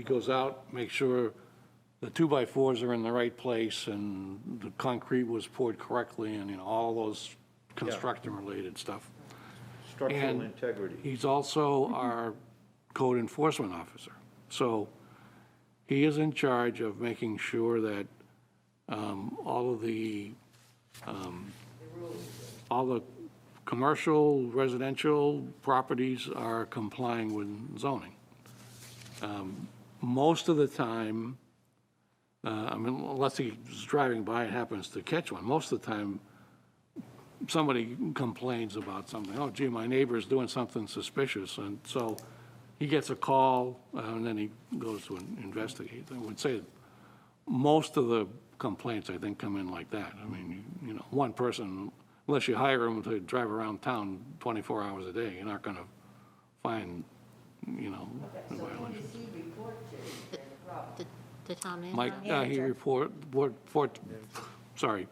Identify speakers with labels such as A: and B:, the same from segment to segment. A: He goes out, makes sure the two-by-fours are in the right place, and the concrete was poured correctly, and, you know, all those construction-related stuff.
B: Structural
A: And
B: integrity.
A: He's also our code enforcement officer. So he is in charge of making sure that um, all of the, um, all the commercial, residential properties are complying with zoning. Um, Most of the time, uh, I mean, unless he's driving by and happens to catch one, most of the time, somebody complains about something, oh gee, my neighbor's doing something suspicious, and so he gets a call, uh, and then he goes to investigate. I would say most of the complaints, I think, come in like that. I mean, you- you know, one person, unless you hire him to drive around town 24 hours a day, you're not going to find, you know, a violation.
C: The- The town manager?
A: Mike, uh, he report, board- report, sorry,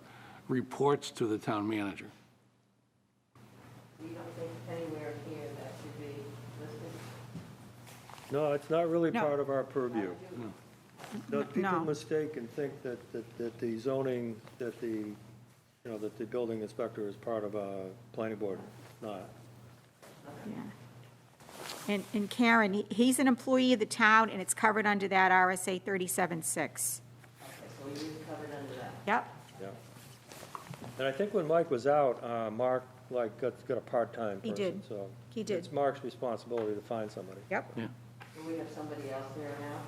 A: reports to the town manager.
D: You don't think anywhere here that should be listed?
B: No, it's not really
E: No.
B: part of our purview. No, people
E: No.
B: mistake and think that, that, that the zoning, that the, you know, that the building inspector is part of a planning board. Not.
E: And, and Karen, he- he's an employee of the town, and it's covered under that RSA 37-6.
D: Okay, so we need covered under that.
E: Yep,
B: Yeah. And I think when Mike was out, uh, Mark, like, got, got a part-time
E: He
B: person,
E: did.
B: so.
E: He did.
B: It's Mark's responsibility to find somebody.
E: yep.
D: Do we have somebody else there now?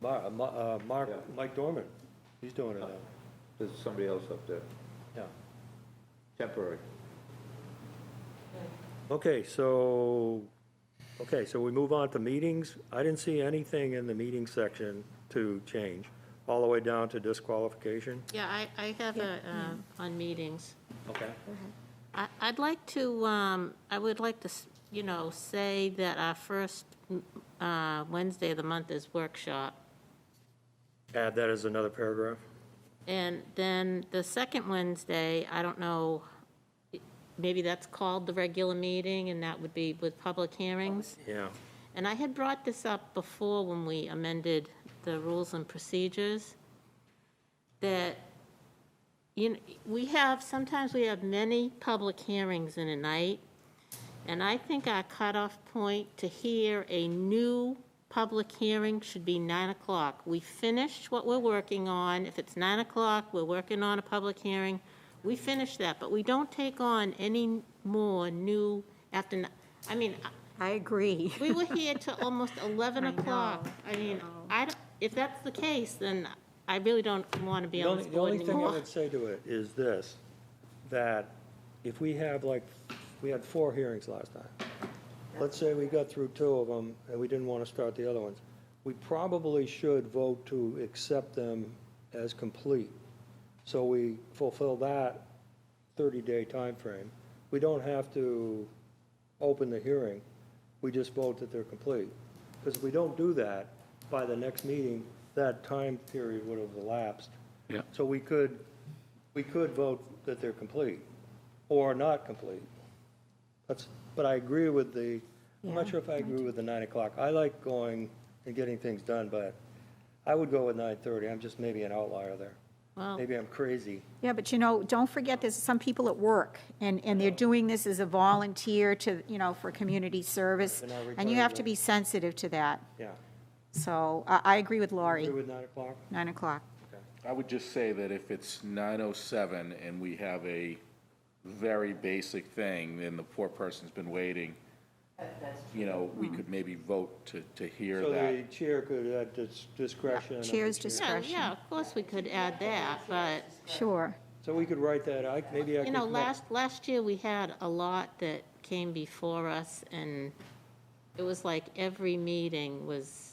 B: Mar, uh, Ma- uh, Mark,
F: Yeah.
B: Mike Dorman, he's doing it now,
F: There's somebody else up there,
B: yeah.
F: temporary.
B: Okay, so, okay, so we move on to meetings. I didn't see anything in the meeting section to change, all the way down to disqualification.
C: Yeah, I, I have a, um, on meetings.
B: Okay.
C: I, I'd like to, um, I would like to, s- you know, say that our first mm, uh, Wednesday of the month is workshop.
B: Add that as another paragraph.
C: And then the second Wednesday, I don't know, maybe that's called the regular meeting, and that would be with public hearings.
B: Yeah,
C: And I had brought this up before when we amended the rules and procedures, that, you know, we have, sometimes we have many public hearings in a night, and I think our cutoff point to hear a new public hearing should be 9 o'clock. We finish what we're working on. If it's 9 o'clock, we're working on a public hearing, we finish that, but we don't take on any more new after, ni- I mean,
E: I agree.
C: we were here till almost 11 o'clock. I mean, I, don't- if that's the case, then I really don't want to be
B: The
C: on
B: only,
C: this
B: the
C: board
B: only thing I
C: anymore.
B: would say to it is this, that if we have like, we had four hearings last time. Let's say we got through two of them and we didn't want to start the other ones. We probably should vote to accept them as complete. So we fulfill that thirty-day time frame. We don't have to open the hearing. We just vote that they're complete. Because if we don't do that, by the next meeting, that time period would have elapsed.
A: Yeah.
B: So we could, we could vote that they're complete or not complete. That's, but I agree with the, I'm not sure if I agree with the nine o'clock. I like going and getting things done, but I would go with nine thirty. I'm just maybe an outlier there.
C: Well-
B: Maybe I'm crazy.
E: Yeah, but you know, don't forget, there's some people at work, and, and they're doing this as a volunteer to, you know, for community service,
B: They're not
E: and you have
B: retired,
E: to
B: right?
E: be sensitive to that.
B: Yeah.
E: So I, I agree with Laurie,
B: Agree with nine o'clock?
E: 9 o'clock.
G: I would just say that if it's 9:07 and we have a very basic thing, then the poor person's been waiting,
D: That- That's true.
G: you know, we could maybe vote to, to hear
B: So the
G: that.
B: chair could add dis- discretion. of the
E: Chair's
B: chair.
C: Yeah,
E: discretion.
C: yeah, of course we could add that, but,
E: Sure.
B: So we could write that, I, maybe I could.
C: you know,
B: come up-
C: last, last year we had a lot that came before us, and it was like every meeting was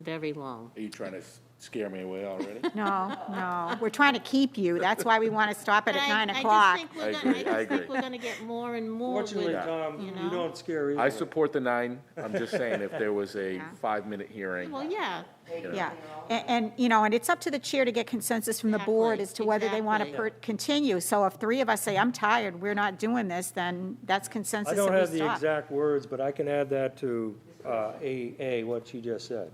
C: very long.
G: Are you trying to s- scare me away already?
E: No, no, we're trying to keep you, that's why we want to stop it at 9 o'clock.
C: I
G: I
C: just think we're
G: agree,
C: gonna,
G: I
C: I just think
G: agree.
C: we're gonna get more and more with,
B: Fortunately,
C: you
B: Tom, you
C: know?
B: don't scare either.
G: I support the nine, I'm just saying if there was a five-minute hearing,
C: Well, yeah,
E: Yeah, and, and, you know, and it's up to the chair to get consensus from the board
C: Exactly,
E: as to whether they want
C: exactly.
E: to continue. So if three of us say, I'm tired, we're not doing this, then that's
B: I
E: consensus
B: don't
E: that
B: have
E: we
B: the
E: stop.
B: exact words, but I can add that to uh, A, A, what you just said.